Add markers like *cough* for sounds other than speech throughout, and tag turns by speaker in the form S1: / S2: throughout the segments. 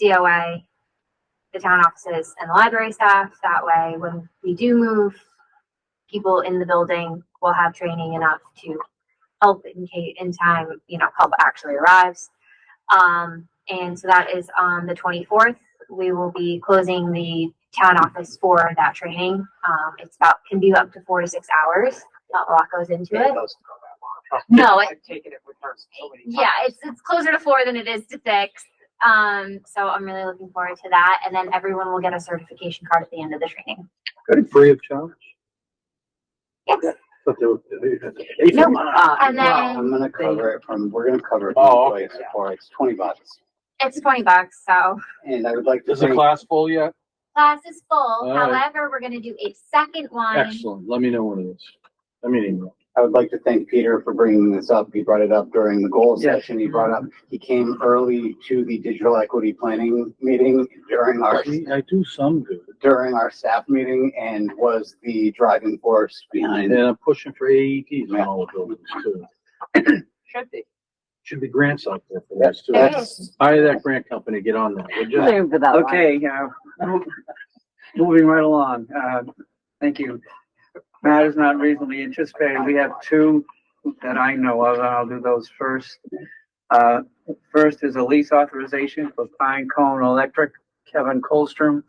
S1: COA, the town offices and the library staff. That way, when we do move, people in the building will have training enough to help in case, in time, you know, help actually arrives. Um, and so that is on the twenty-fourth. We will be closing the town office for that training. Um, it's about, can be up to four to six hours. Not a lot goes into it. No, it-
S2: I've taken it with her so many times.
S1: Oh, Yeah, it's it's closer to four than it is to six. Um, so I'm really looking forward to that. And then everyone will get a certification card at the end of the training.
S3: Good, free of charge.
S1: Yes.
S3: But they were- they
S1: No,
S3: were-
S2: Uh,
S1: and
S2: no.
S1: then-
S4: I'm gonna cover it from, we're gonna cover it
S3: Oh,
S4: from
S3: okay.
S4: place for, it's twenty bucks.
S1: It's twenty bucks, so
S4: And I would like to
S3: Is the
S4: thank,
S3: class full yet?
S1: class is full.
S3: All right.
S1: However, we're gonna do a second one.
S3: Excellent, let me know when it is. I mean, email.
S4: I would like to thank Peter for bringing this up. He brought it up during the goal
S3: Yes.
S4: session. He brought up, he came early to the digital equity planning meeting during our,
S3: I do some good,
S4: during our staff meeting and was the driving force
S3: and
S4: behind it.
S3: I'm pushing for AEDs in all the buildings too.
S2: Should be.
S3: Should be grants out there for this too.
S1: There
S4: That's-
S3: Hire that grant company, get on that, would you?
S5: Okay, uh, mo- *laughs* moving right along, uh, thank you. Matters not reasonably anticipated, we have two that I know of, and I'll do those first. Uh, first is a lease authorization for Pine Cone Electric, Kevin Colstrom.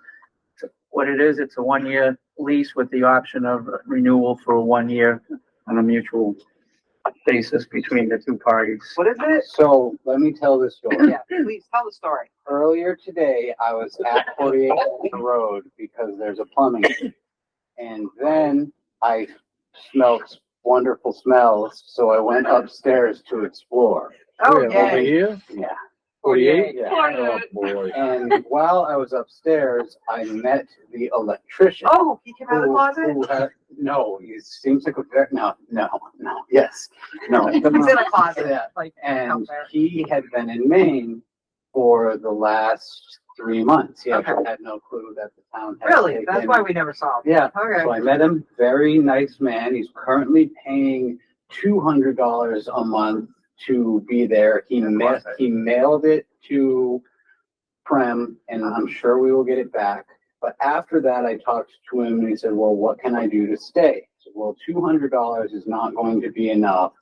S5: What it is, it's a one-year lease with the option of renewal for one year on a mutual basis between the two parties.
S2: What is it?
S4: So let me tell this story.
S2: Oh, *clears throat* Yeah, please tell the story.
S4: earlier today, I was at 48 Elm Road because there's a plumbing. leak. And then I smelled wonderful smells, so I went upstairs to explore.
S2: Oh,
S3: Where, Over
S2: yeah.
S3: here,
S4: Yeah.
S3: forty-eight?
S4: Yeah.
S3: Oh, boy.
S4: And while I was upstairs, I met the electrician.
S2: Oh, he came out of the
S4: who-
S2: closet?
S4: who had- No, he seems like a, ver- no, no, no, yes, no.
S2: *laughs* He's in a closet,
S4: Yeah.
S2: like, out
S4: And
S2: there.
S4: he had been in Maine for the last three months. He
S2: Okay.
S4: actually had no clue that the town had.
S2: Really? That's
S4: taken-
S2: why we never saw him.
S4: Yeah,
S2: Okay.
S4: so I met him, very nice man. He's currently paying two hundred dollars a month to be there. He ma- he mailed it to Prem and I'm sure we will get it back. But after that, I talked to him and he said, well, what can I do to stay? I said, well, two hundred dollars is not going to be enough.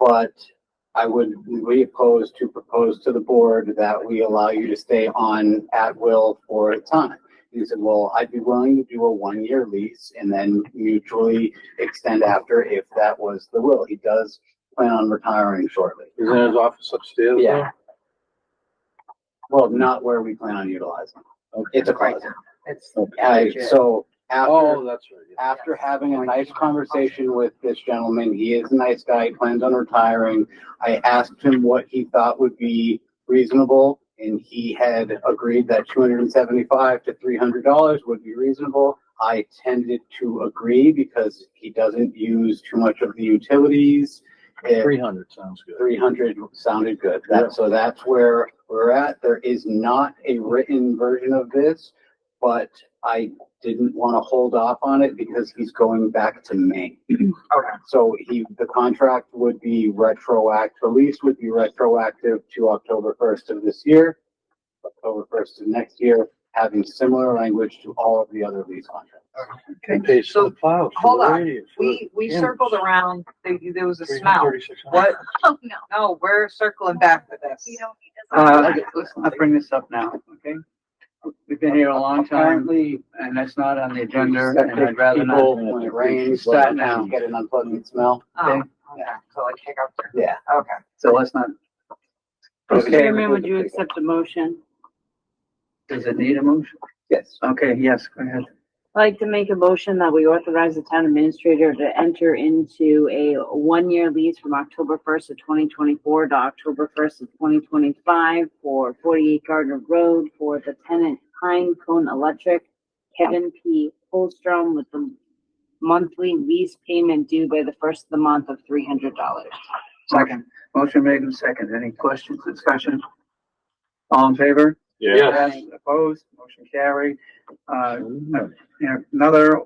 S4: But I would be opposed to propose to the board that we allow you to stay on at will for a time. He said, well, I'd be willing to do a one-year lease and then mutually extend after if that was the will. He does plan on retiring shortly.
S3: Is in his office upstairs?
S4: Yeah.
S3: there?
S4: Well, not where we plan on utilizing.
S3: Okay.
S4: It's a closet.
S2: It's
S4: I- so
S3: Oh,
S4: after,
S3: that's right. yeah.
S4: after having a nice conversation with this gentleman, he is a nice guy, he plans on retiring. I asked him what he thought would be reasonable and he had agreed that two hundred and seventy-five to three hundred dollars would be reasonable. I tended to agree because he doesn't use too much of the utilities. If-
S3: Three hundred sounds good.
S4: 300 sounded good. That, so that's where we're at. There is not a written version of this, but I didn't want to hold off on it because he's going back to Maine.
S2: Okay.
S4: So he, the contract would be retroact, the lease would be retroactive to October 1st of this year, October 1st of next year, having similar language to all of the other lease contracts.
S3: Okay, so the plows. for
S2: hold
S3: the
S2: on.
S3: radius, for
S2: We, we
S3: Yeah.
S2: circled around, there, there was a
S3: the
S2: smell.
S3: 336.
S2: What?
S1: Oh, no.
S2: No, we're circling back to this.
S1: You don't need this.
S5: Uh, I'll bring this up now, okay? We've been here a long time.
S4: Apparently,
S5: and that's not on the agenda,
S4: septic
S5: and I'd rather
S4: people,
S5: not.
S4: When it rains,
S5: Start
S4: now,
S5: now.
S4: get an unpleasant smell.
S2: Oh,
S5: Okay.
S2: okay. So like kick up.
S4: Yeah.
S2: Okay.
S5: So let's not.
S4: Okay.
S6: Chairman, would you accept a motion?
S5: Does it need a motion?
S4: Yes.
S5: Okay, yes, go ahead.
S6: I'd like to make a motion that we authorize the town administrator to enter into a one-year lease from October first of twenty twenty-four to October first of twenty twenty-five for forty-eight Gardner Road for the tenant Pine Cone Electric, Kevin P. Holstrom with the monthly lease payment due by the first of the month of three hundred dollars.
S5: Second, motion made and second. Any questions, discussion? All in favor?
S3: Yeah.
S5: Yes. Opposed? Motion carried. Uh,
S3: Mm.
S5: another,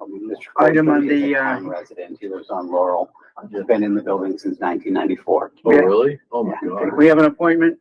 S4: Mr.
S5: Item on
S4: Crabtree is a
S5: the, uh,
S4: town Resident, he lives on Laurel, he's been in the building since nineteen ninety-four.
S3: Oh, really? Oh, my God.
S5: we have an appointment